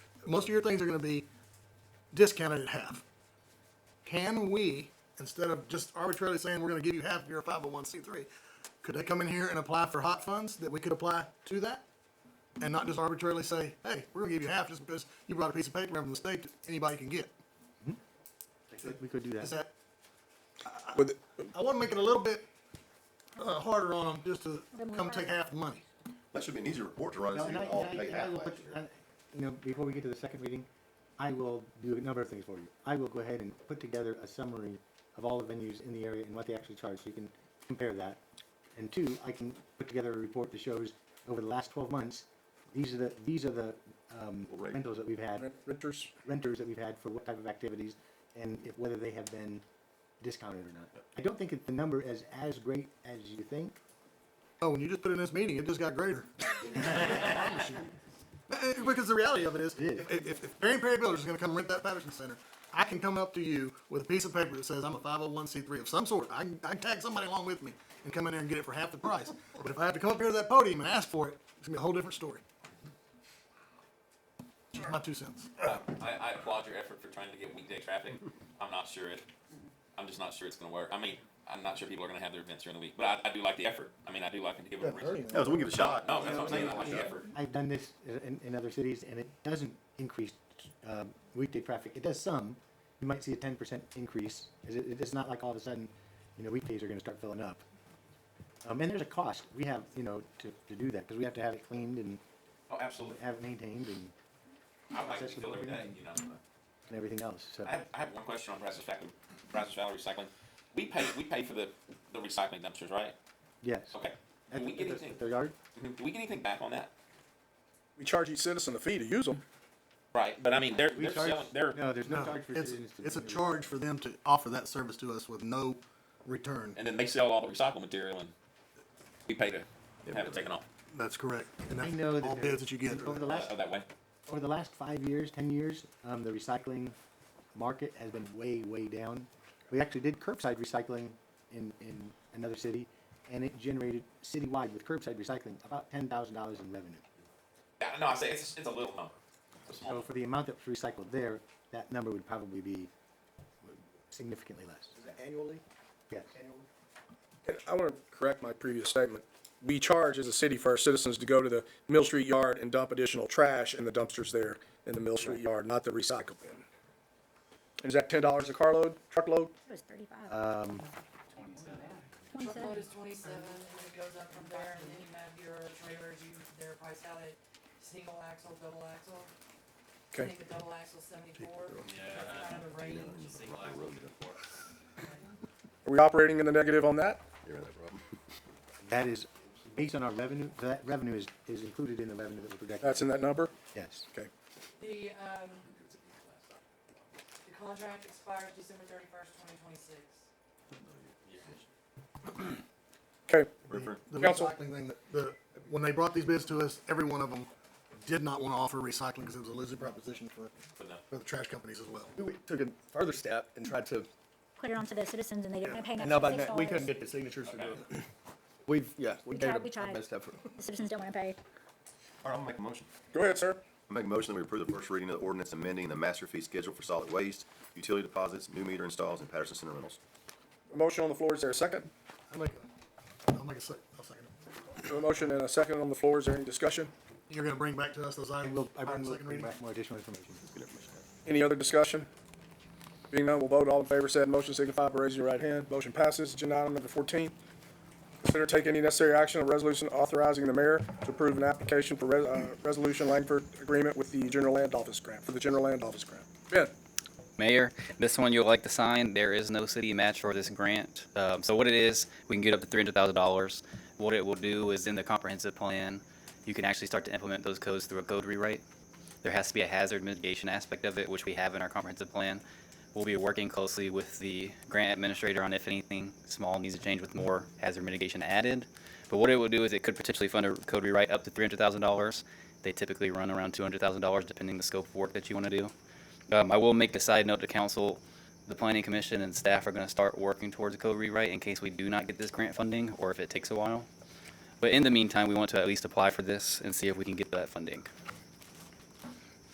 most of your things are gonna be discounted at half. Can we, instead of just arbitrarily saying we're gonna give you half if you're a five oh one C three, could they come in here and apply for hot funds that we could apply to that? And not just arbitrarily say, hey, we're gonna give you half just because you brought a piece of paper from the state that anybody can get. We could do Is that. that, With, I wanna make it a little bit, uh, harder on them just to come take half the money. That should be an easy report to run and Now, see and I- if all and I- paid and I half will last put- year. and, You know, uh, before we get to the second reading, I will do a number of things for you. I will go ahead and put together a summary of all the venues in the area and what they actually charge, so you can compare that. And two, I can put together a report that shows over the last twelve months, these are the, these are the, um, Right. rentals that we've had, renters, renters that we've had for what type of activities, and if, whether they have been discounted or not. I don't think that the number is as great as you think, Oh, when you just put it in this meeting, it just got greater. I promise you. Eh, eh, Because the reality of it is, Yeah. if, if, if Marion Perry Builders is gonna come rent that Patterson Center, I can come up to you with a piece of paper that says I'm a five oh one C three of some sort. I can, I can tag somebody along with me and come in there and get it for half the price. But if I have to come up here to that podium and ask for it, it's gonna be a whole different story. Just my two cents. I, I applaud your effort for trying to get weekday traffic. I'm not sure it, I'm just not sure it's gonna work. I mean, I'm not sure people are gonna have their events during the week, but I, I do like the effort. I mean, I do like to give them a reason. No, so we can give it a shot. Oh, No, that's what I'm saying, I like the effort. I've done this in, in other cities, and it doesn't increase uh, weekday traffic. It does some. You might see a ten percent increase. Is It, it's not like all of a sudden, you know, weekdays are going to start filling up. Um, and there's a cost we have, you know, to, to do that because we have to have it cleaned and Oh, absolutely. have it maintained and, I like to feel every day, you know. and everything else. So I have, I have one question on Brazos Valley, Brazos Valley Recycling. We pay, we pay for the, the recycling dumpsters, right? yes. Okay. At Do we the, get at the, anything, at the yard. mhm, do we get anything back on that? we charge each citizen a fee to use them. Right, but I mean, they're, We they're selling, they're, no, there's no, No, charge for it's, citizens. to it's a do it. charge for them to offer that service to us with no return. and then they sell all the recycled material and we pay to have it taken off, That's correct. And I know that's that all there- bids that you get. over the last uh, that way. over the last five years, ten years, um, the recycling market has been way, way down. We actually did curbside recycling in, in another city, and it generated citywide with curbside recycling about ten thousand dollars in revenue. Yeah, no, I say it's, it's a little number. It's a small So number. for the amount that was recycled there, that number would probably be significantly less. Annually? Yes. I want to correct my previous statement. We charge as a city for our citizens to go to the Mill Street Yard and dump additional trash in the dumpsters there in the Mill Street Yard, not the recycle bin. Is that ten dollars a carload, truckload? It was thirty-five. Um, Twenty-seven. Truckload is twenty-seven, and it goes up from there, and then you have your trailers, you, they're priced out at single axle, double axle. I Okay, think a double axle seventy-four. That's kind of the range. are we operating in the negative on that? That is based on our revenue, that revenue is, is included in the revenue that we projected. That's in that number? Yes. Okay. The, um, the contract expires December thirty-first, twenty twenty-six. Okay, the Counsel. recycling thing that the when they brought these bids to us, every one of them did not want to offer recycling because it was a losing proposition for For them. for the trash companies as well. We took a further step and tried to, Put it onto the citizens and they didn't pay and an extra nobody, six we couldn't dollars. get the signatures to do it. We've, yeah, we We gave tried- it we our tried. best effort. The citizens don't wanna pay. All right, I'll make a motion. go ahead, sir. I make a motion that we approve the first reading of the ordinance amending the master fee schedule for solid waste, utility deposits, new meter installs, and Patterson Center rentals. A Motion on the floor, is there a second? I'll make a, I'll make a sec, I'll second it. A motion and a second on the floor, is there any discussion? You're gonna bring back to us those And items we'll, I on bring, the second bring reading? back more additional information. Any other discussion? Being none, we'll vote. All in favor, said motion signify by raising your right hand. Motion passes. Agenda item number fourteen. Consider take any necessary action on resolution authorizing the mayor to approve an application for res- uh, resolution Langford agreement with the general land office grant, for the general land office grant. Ben, Mayor, this one you'll like to sign. There is no city match for this grant. Um, so what it is, we can get up to three hundred thousand dollars. What it will do is in the comprehensive plan, you can actually start to implement those codes through a code rewrite. There has to be a hazard mitigation aspect of it, which we have in our comprehensive plan. We'll be working closely with the grant administrator on if anything small needs to change with more hazard mitigation added. But what it will do is it could potentially fund a code rewrite up to three hundred thousand dollars. They typically run around two hundred thousand dollars depending the scope of work that you want to do. Um, I will make a side note to council, the planning commission and staff are gonna start working towards a code rewrite in case we do not get this grant funding, or if it takes a while. But in the meantime, we want to at least apply for this and see if we can get that funding.